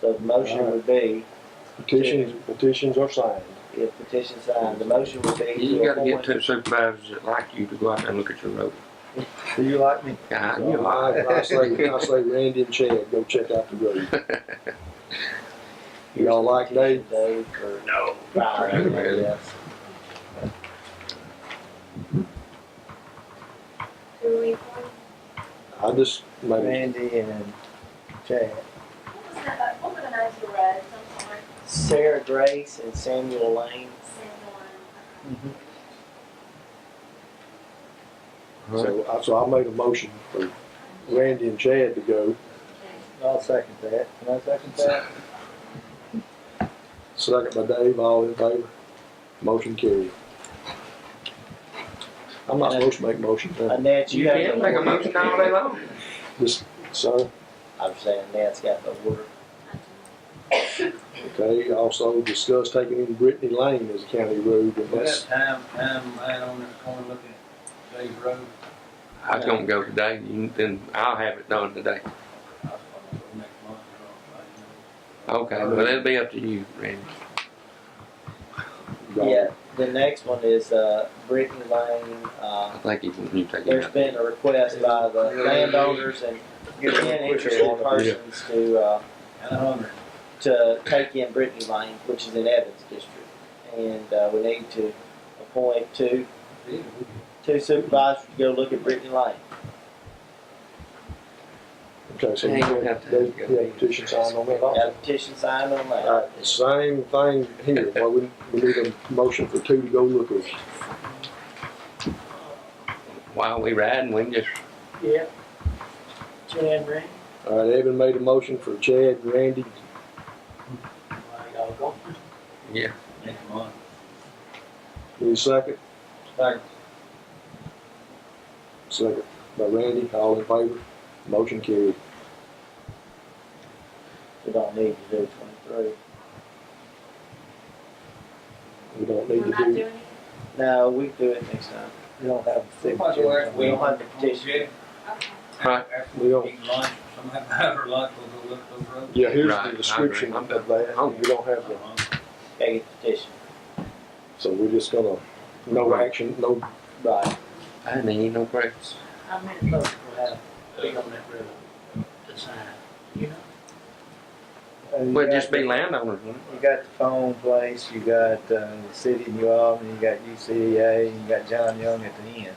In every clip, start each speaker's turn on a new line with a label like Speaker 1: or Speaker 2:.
Speaker 1: So the motion would be,
Speaker 2: Petitions, petitions are signed.
Speaker 1: if petition signed, the motion would be
Speaker 3: You
Speaker 1: to
Speaker 3: gotta get
Speaker 1: appoint.
Speaker 3: two supervisors that like you to go out there and look at your road.
Speaker 4: Do you like me?
Speaker 3: God, you lie.
Speaker 2: I I say, I say Randy and Chad, go check out the road. Y'all like Dave?
Speaker 1: Dave for
Speaker 4: No.
Speaker 1: prior, yes.
Speaker 5: Who we,
Speaker 2: I just, maybe,
Speaker 1: Randy and Chad.
Speaker 5: what was that, uh, what were the names you read, some sort
Speaker 1: Sarah Grace and Samuel Lane.
Speaker 5: of similar?
Speaker 2: Mm-hmm. so, I- so I made a motion for Randy and Chad to go.
Speaker 1: I'll second that. Can I second that?
Speaker 2: Second by Dave, all in favor? Motion carried. I'm not supposed to make motions, huh?
Speaker 1: Annette, you
Speaker 3: You
Speaker 1: have.
Speaker 3: can
Speaker 1: the
Speaker 3: make a
Speaker 1: order.
Speaker 3: motion all day long.
Speaker 2: Just, so,
Speaker 1: I'm saying Annette's got the order.
Speaker 2: okay, also discuss taking in Brittany Lane as a county road, and
Speaker 6: Well,
Speaker 2: that's,
Speaker 6: that time, time right on this corner looking at Dave Road,
Speaker 3: I was gonna go today, you- then I'll have it done today.
Speaker 6: I was gonna go next month, I don't know.
Speaker 3: Okay, well, it'll be up to you, Randy.
Speaker 1: Yeah, the next one is, uh, Brittany Lane, uh,
Speaker 3: I think you can, you take it
Speaker 1: there's
Speaker 3: out.
Speaker 1: been a request by the landowners and European interested persons to, uh,
Speaker 6: And I wonder,
Speaker 1: to take in Brittany Lane, which is in Evans District. And, uh, we need to appoint two,
Speaker 6: yeah,
Speaker 1: two supervisors to go look at Brittany Lane.
Speaker 2: okay, so
Speaker 3: Yeah, you don't have to-
Speaker 2: Dave, you have a petition signed on that also?
Speaker 1: Got a petition signed on
Speaker 2: All
Speaker 1: that.
Speaker 2: right, the same thing here, well, we, we need a motion for two to go look at.
Speaker 3: While we riding, we can just,
Speaker 1: Yeah. Jan Ring.
Speaker 2: All right, Evan made a motion for Chad and Randy,
Speaker 1: Y'all go.
Speaker 3: yeah,
Speaker 6: next month.
Speaker 2: any second?
Speaker 6: Second.
Speaker 2: Second by Randy, all in favor, motion carried.
Speaker 1: We don't need to do twenty-three.
Speaker 2: We don't
Speaker 5: We're
Speaker 2: need
Speaker 5: not
Speaker 2: to
Speaker 5: doing
Speaker 2: do,
Speaker 5: it.
Speaker 1: No, we do it next time. We don't have the
Speaker 6: Might as well,
Speaker 1: We don't have the petition.
Speaker 6: Yeah,
Speaker 5: Okay.
Speaker 3: Right.
Speaker 6: After
Speaker 2: We don't-
Speaker 6: we eat lunch, sometime after lunch, we'll go look at those roads.
Speaker 2: yeah, here's
Speaker 3: Right, I
Speaker 2: the
Speaker 3: agree.
Speaker 2: description
Speaker 3: I'm
Speaker 2: of
Speaker 3: done.
Speaker 2: that,
Speaker 3: I'm-
Speaker 2: we don't have the,
Speaker 6: Uh-huh.
Speaker 1: Take a petition.
Speaker 2: so we're just gonna, no
Speaker 3: Right.
Speaker 2: action, no,
Speaker 1: Right.
Speaker 3: I need no breaks.
Speaker 7: How many folks will have big on that road to sign? You know,
Speaker 3: We'll just be landowners, won't
Speaker 1: You got the phone place, you got, uh, the city of New Albany, you got UCA, and you got John Young at the end.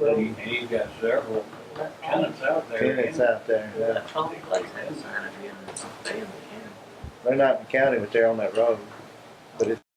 Speaker 6: And he- and he's got several tenants out there.
Speaker 1: Tenants out there, yeah.
Speaker 7: that's all the place that sign it in, it's a family, yeah.
Speaker 1: They're not in the county, but they're on that road. But it's